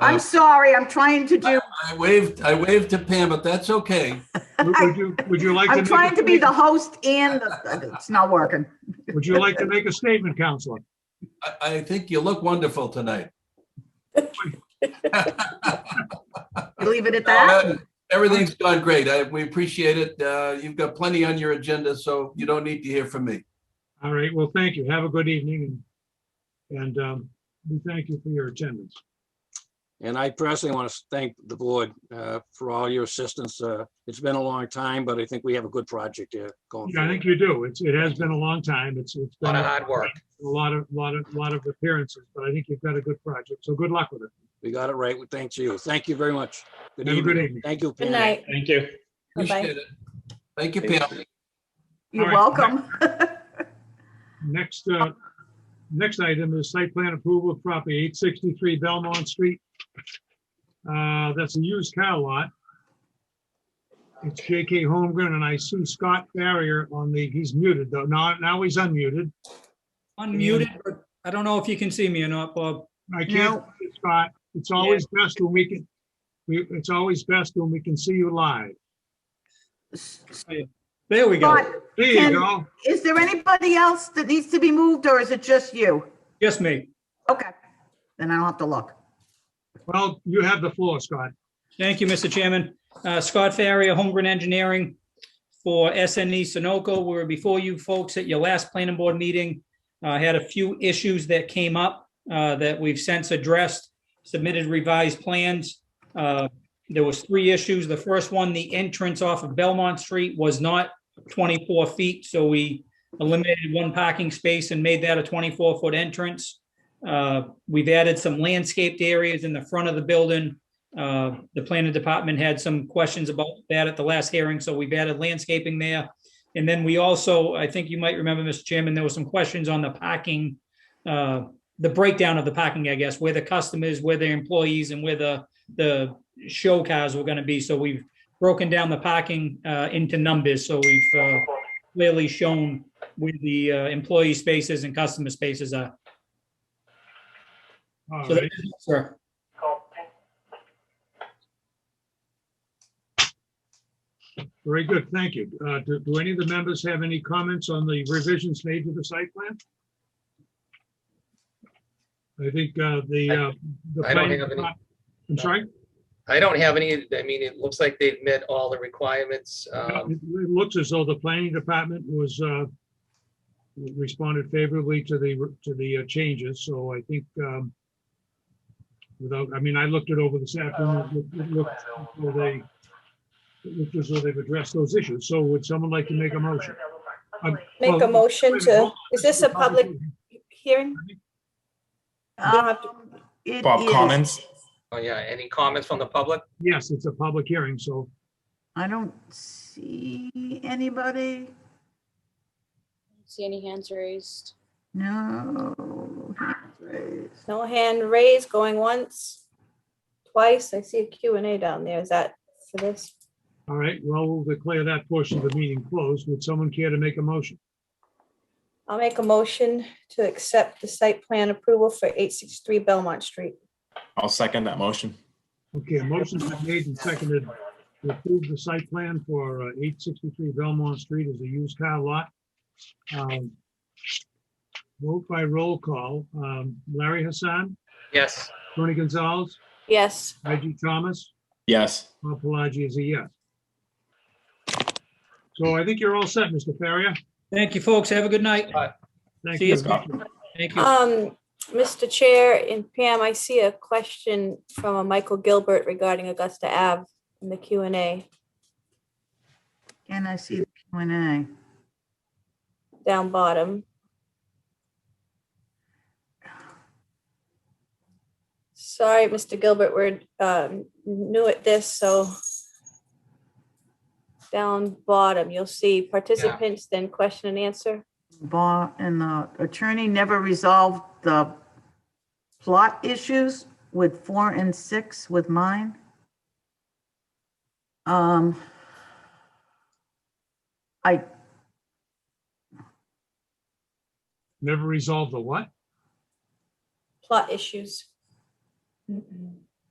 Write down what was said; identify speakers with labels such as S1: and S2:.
S1: I'm sorry, I'm trying to do,
S2: I waved, I waved to Pam, but that's okay.
S3: Would- Would you, would you like to?
S1: I'm
S3: make a
S1: trying to be the
S3: statement?
S1: host and the- it's not working.
S3: Would you like to make a statement, Counselor?
S2: I, I think you look wonderful tonight.
S1: You Leave it at that?
S2: Everything's gone great. I, we appreciate it. Uh, you've got plenty on your agenda, so you don't need to hear from me.
S3: All right, well, thank you. Have a good evening. and- And um, we thank you for your attendance.
S4: And I personally want to thank the board uh, for all your assistance. Uh, It's been a long time, but I think we have a good project here going.
S3: Yeah, I think
S4: forward.
S3: you do. It's, it has been a long time. It's, it's
S5: A
S3: been
S5: lot of
S3: a
S5: hard work.
S3: lot of, lot of, lot of appearances, but I think you've got a good project. So good luck with it.
S4: We got it right. Thanks to you. Thank you very much. Good
S3: Have a good
S4: evening.
S3: evening.
S4: Thank you.
S6: Good
S4: Pam.
S6: night.
S5: Thank you.
S6: Bye-bye.
S2: Appreciate it. Thank you, Pam.
S1: You're
S3: All right.
S1: welcome.
S3: Next, uh, next item is site plan approval of property eight sixty-three Belmont Street. Uh, that's a used car lot. It's J.K. Holmgren, and I see Scott Barrier on the, he's muted though. Now, now he's unmuted.
S7: Unmuted, but I don't know if you can see me or not, Bob.
S3: I can't, see Scott, it's always best when we can, we, it's always best when we can see you live.
S7: There we go.
S1: But
S3: There
S1: Can-
S3: you go.
S1: is there anybody else that needs to be moved or is it just you?
S7: Yes, me.
S1: Okay, then I don't have to look.
S3: Well, you have the floor, Scott.
S7: Thank you, Mr. Chairman. Uh, Scott Farrier, Holmgren Engineering for SNE Sunoco. We were before you folks at your last planning board meeting. I had a few issues that came up uh, that we've since addressed, submitted revised plans. Uh, There was three issues. The first one, the entrance off of Belmont Street was not 24 feet, so we eliminated one parking space and made that a 24-foot entrance. Uh, We've added some landscaped areas in the front of the building uh, The planning department had some questions about that at the last hearing, so we've added landscaping there. And then we also, I think you might remember, Mr. Chairman, there were some questions on the parking, uh, the breakdown of the parking, I guess, where the customers, where their employees, and where the, the show cars were going to be. So we've broken down the parking uh, into numbers, so we've uh, clearly shown where the uh, employee spaces and customer spaces are.
S3: All
S7: So,
S3: right.
S7: that- sir.
S3: Very good, thank you. Uh, Do do any of the members have any comments on the revisions made to the site plan? I think uh, the. uh, the
S5: I don't
S3: planning
S5: have any.
S3: depart- I'm sorry,
S5: I don't have any, I mean, it looks like they've met all the requirements.
S3: it
S5: Um,
S3: it looks as though the planning department was uh, responded favorably to the, to the uh, changes, so I think um, without, I mean, I looked it over this afternoon. It looked as though they- it looked as though they've addressed those issues, so would someone like to make a motion? Um,
S6: Make
S3: well,
S6: a motion
S3: wait minute, hold
S6: to,
S3: on.
S6: is this a public hearing? You don't have to-
S1: Um, it
S8: Bob
S1: is-
S8: comments?
S5: oh yeah, any comments from the public?
S3: Yes, it's a public hearing, so
S1: I don't see anybody.
S9: See any hands raised?
S1: No. hands raised.
S6: No hand raised, going once, twice. I see a Q and A down there. Is that for this?
S3: All right, well, we'll declare that portion of the meeting closed. Would someone care to make a motion?
S6: I'll make a motion to accept the site plan approval for eight six three Belmont Street.
S8: I'll second that motion.
S3: Okay, a motion's been made and seconded to approve the site plan for uh, eight sixty-three Belmont Street as a used car lot. Um, Vote by roll call, um, Larry Hassan,
S5: Yes,
S3: Tony Gonzalez,
S6: Yes.
S3: IG Thomas,
S8: Yes,
S3: Bob Pelagi is a yes. So I think you're all set, Mr. Farrier.
S7: Thank you, folks. Have a good night.
S3: Thank
S7: See
S3: you.
S7: you.
S8: Scott.
S7: Thank you.
S6: Um, Mr. Chair and Pam, I see a question from a Michael Gilbert regarding Augusta Ave in the Q and A
S1: Can I see the Q and A?
S6: down bottom. Sorry, Mr. Gilbert, we're um, new at this, so down bottom, you'll see participants, then question and answer.
S1: Bar and the attorney never resolved the plot issues with four and six with mine. Um, I,
S3: Never resolved the what?
S6: Plot issues.